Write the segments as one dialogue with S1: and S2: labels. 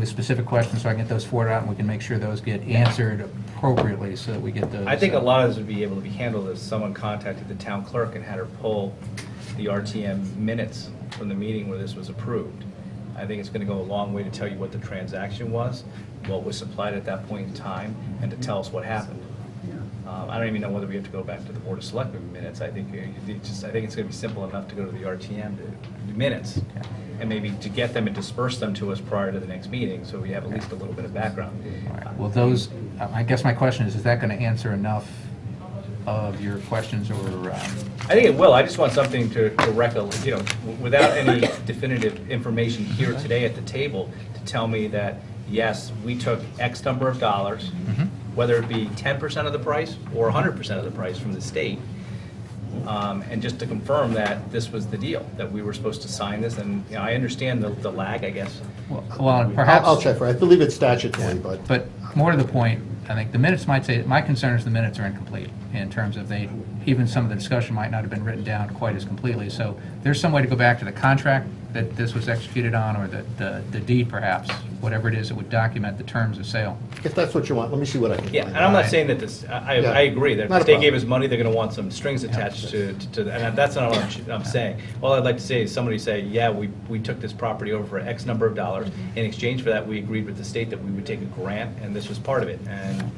S1: with specific questions, so I can get those forwarded out, and we can make sure those get answered appropriately, so that we get those.
S2: I think a
S1: uh,
S2: lot of this would be able to be handled if someone contacted the town clerk and had her pull the RTM minutes from the meeting where this was approved. I think it's going to go a long way to tell you what the transaction was, what was supplied at that point in time, and to tell us what happened. Um, I don't even know whether we have to go back to the Board of Selectmen minutes. I think, uh, you just, I think it's going to be simple enough to go to the RTM to- minutes, and maybe to get them and disperse them to us prior to the next meeting, so we have at least a little bit of background.
S1: all right. Well, those, I I guess my question is, is that going to answer enough of your questions, or, um,
S2: I think it will, I just want something to, to recollect, you know, w- without any definitive information here today at the table to tell me that, yes, we took X number of dollars,
S1: Mhm.
S2: whether it be ten percent of the price or hundred percent of the price from the state. Um, and just to confirm that this was the deal, that we were supposed to sign this, and, you know, I understand the, the lag, I guess.
S1: well, perhaps.
S3: I'll I'll check for it. I believe it's statutory, but.
S1: But more to the point, I think the minutes might say, my concern is the minutes are incomplete in terms of they, even some of the discussion might not have been written down quite as completely. So there's some way to go back to the contract that this was executed on or the, the the deed perhaps, whatever it is that would document the terms of sale.
S3: If that's what you want, let me see what I can find.
S2: Yeah, and I'm not saying that this, I, I
S3: Yeah.
S2: I agree, that if
S3: Not a
S2: they gave
S3: problem.
S2: us money, they're gonna want some strings attached to, to, to- and that's not what I'm, I'm saying. All I'd like to say is somebody say, yeah, we, we took this property over for X number of dollars.
S1: Mm-hmm.
S2: In exchange for that, we agreed with the state that we would take a grant, and this was part of it, and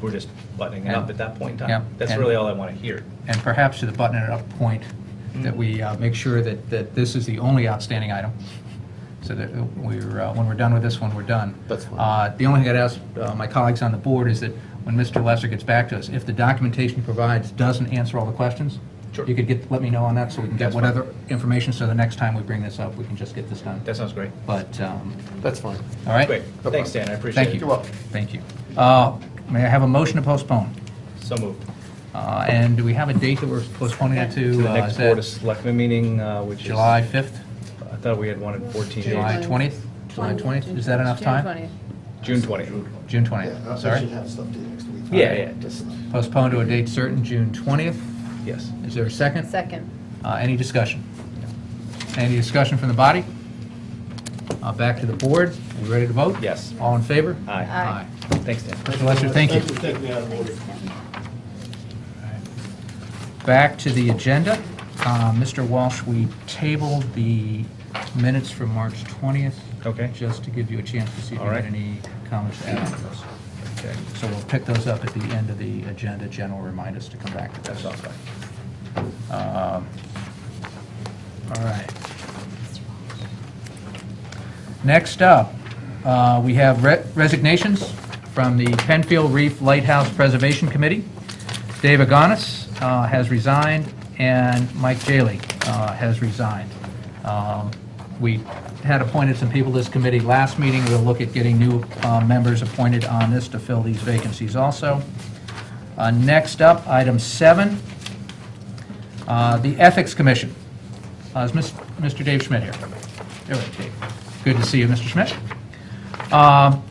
S2: we're just buttoning it up at that point in
S1: Yeah.
S2: time. That's
S1: And-
S2: really all I wanna hear.
S1: And perhaps to the button it up point,
S2: Hmm.
S1: that we uh, make sure that, that this is the only outstanding item. So that we're, uh, when we're done with this one, we're done.
S3: That's fine.
S1: Uh, The only thing I'd ask uh, my colleagues on the board is that when Mr. Lesser gets back to us, if the documentation he provides doesn't answer all the questions,
S2: Sure.
S1: you could get, let me know on that so we can get
S2: That's
S1: what
S2: fine.
S1: other information, so the next time we bring this up, we can just get this done.
S2: That sounds great.
S1: But, um,
S3: That's fine.
S1: all right?
S2: Great,
S3: No
S2: thanks,
S3: problem.
S2: Dan, I appreciate it.
S1: Thank you.
S3: You're welcome.
S1: Thank you. Uh, May I have a motion to postpone?
S2: So moved.
S1: Uh, And do we have a date that we're postponing it to?
S2: To the
S1: Uh,
S2: next
S1: is that
S2: Board of Selectmen meeting, uh, which is.
S1: July 5th?
S2: I thought we had one in fourteen
S1: July
S2: days.
S1: 20th? July 20th, is that enough time?
S2: June
S4: June
S2: twentieth.
S1: June
S3: Yeah,
S1: 20th,
S3: I should
S1: sorry.
S3: have stuff to you next week.
S2: Yeah, yeah,
S3: Just-
S1: Postponed to a date certain, June 20th.
S2: Yes.
S1: Is there a
S4: 20th.
S1: second?
S4: Second.
S1: Uh, Any discussion? Any discussion from the body? Uh, Back to the board. We ready to vote?
S2: Yes.
S1: All in favor?
S2: Aye.
S4: Aye.
S2: Thanks, Dan.
S1: Mr. Lester, thank you.
S3: Thanks for taking me out of order.
S1: Back to the agenda. Uh, Mr. Walsh, we tabled the minutes from March 20th.
S2: Okay.
S1: Just to give you a chance to see if you
S2: All
S1: had
S2: right.
S1: any comments to add on those.
S2: Okay.
S1: So we'll pick those up at the end of the agenda. Jen will remind us to come back to those.
S2: That's all fine.
S1: Um, All right. Next up, uh, we have re- resignations from the Penfield Reef Lighthouse Preservation Committee. Dave Agonis uh, has resigned, and Mike Jaley uh, has resigned. Um, We had appointed some people to this committee last meeting. We'll look at getting new uh, members appointed on this to fill these vacancies also. Uh, Next up, item seven, uh, The Ethics Commission. Uh, Is Mis- Mr. Dave Schmidt here? There we go, Dave. Good to see you, Mr. Schmidt. Um,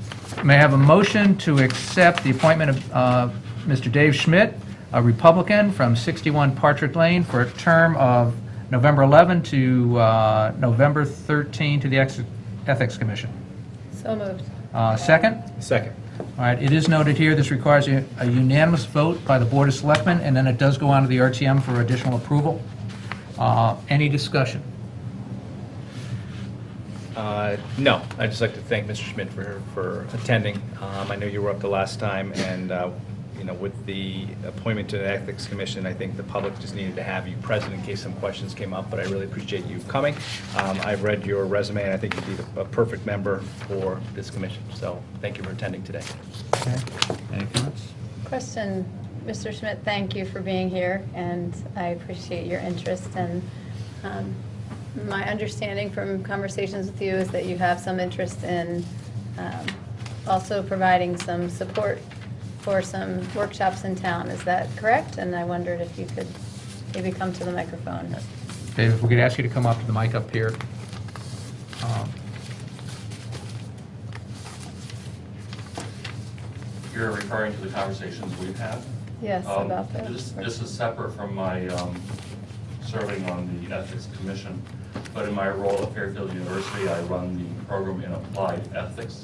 S1: May I have a motion to accept the appointment of uh, Mr. Dave Schmidt, a Republican from 61 Partridge Lane, for a term of November 11 to uh, November 13 to the Ex- Ethics Commission?
S4: So moved.
S1: Uh, Second?
S2: Second.
S1: All right, it is noted here, this requires a a unanimous vote by the Board of Selectmen, and then it does go on to the RTM for additional approval. Uh, Any discussion?
S2: Uh, No, I'd just like to thank Mr. Schmidt for, for attending. Um, I know you were up the last time, and, uh, you know, with the appointment to the Ethics Commission, I think the public just needed to have you present in case some questions came up, but I really appreciate you coming. Um, I've read your resume, and I think you'd be the- a perfect member for this commission, so thank you for attending today.
S1: Okay. Any comments?
S4: Question, Mr. Schmidt, thank you for being here, and I appreciate your interest. And um, my understanding from conversations with you is that you have some interest in um, also providing some support for some workshops in town. Is that correct? And I wondered if you could maybe come to the microphone.
S1: Dave, if we could ask you to come up to the mic up here. Um,
S5: You're referring to the conversations we've had?
S4: Yes,
S5: Um,
S4: about the
S5: This
S4: work-
S5: this is separate from my um, serving on the Ethics Commission, but in my role at Fairfield University, I run the program in Applied Ethics,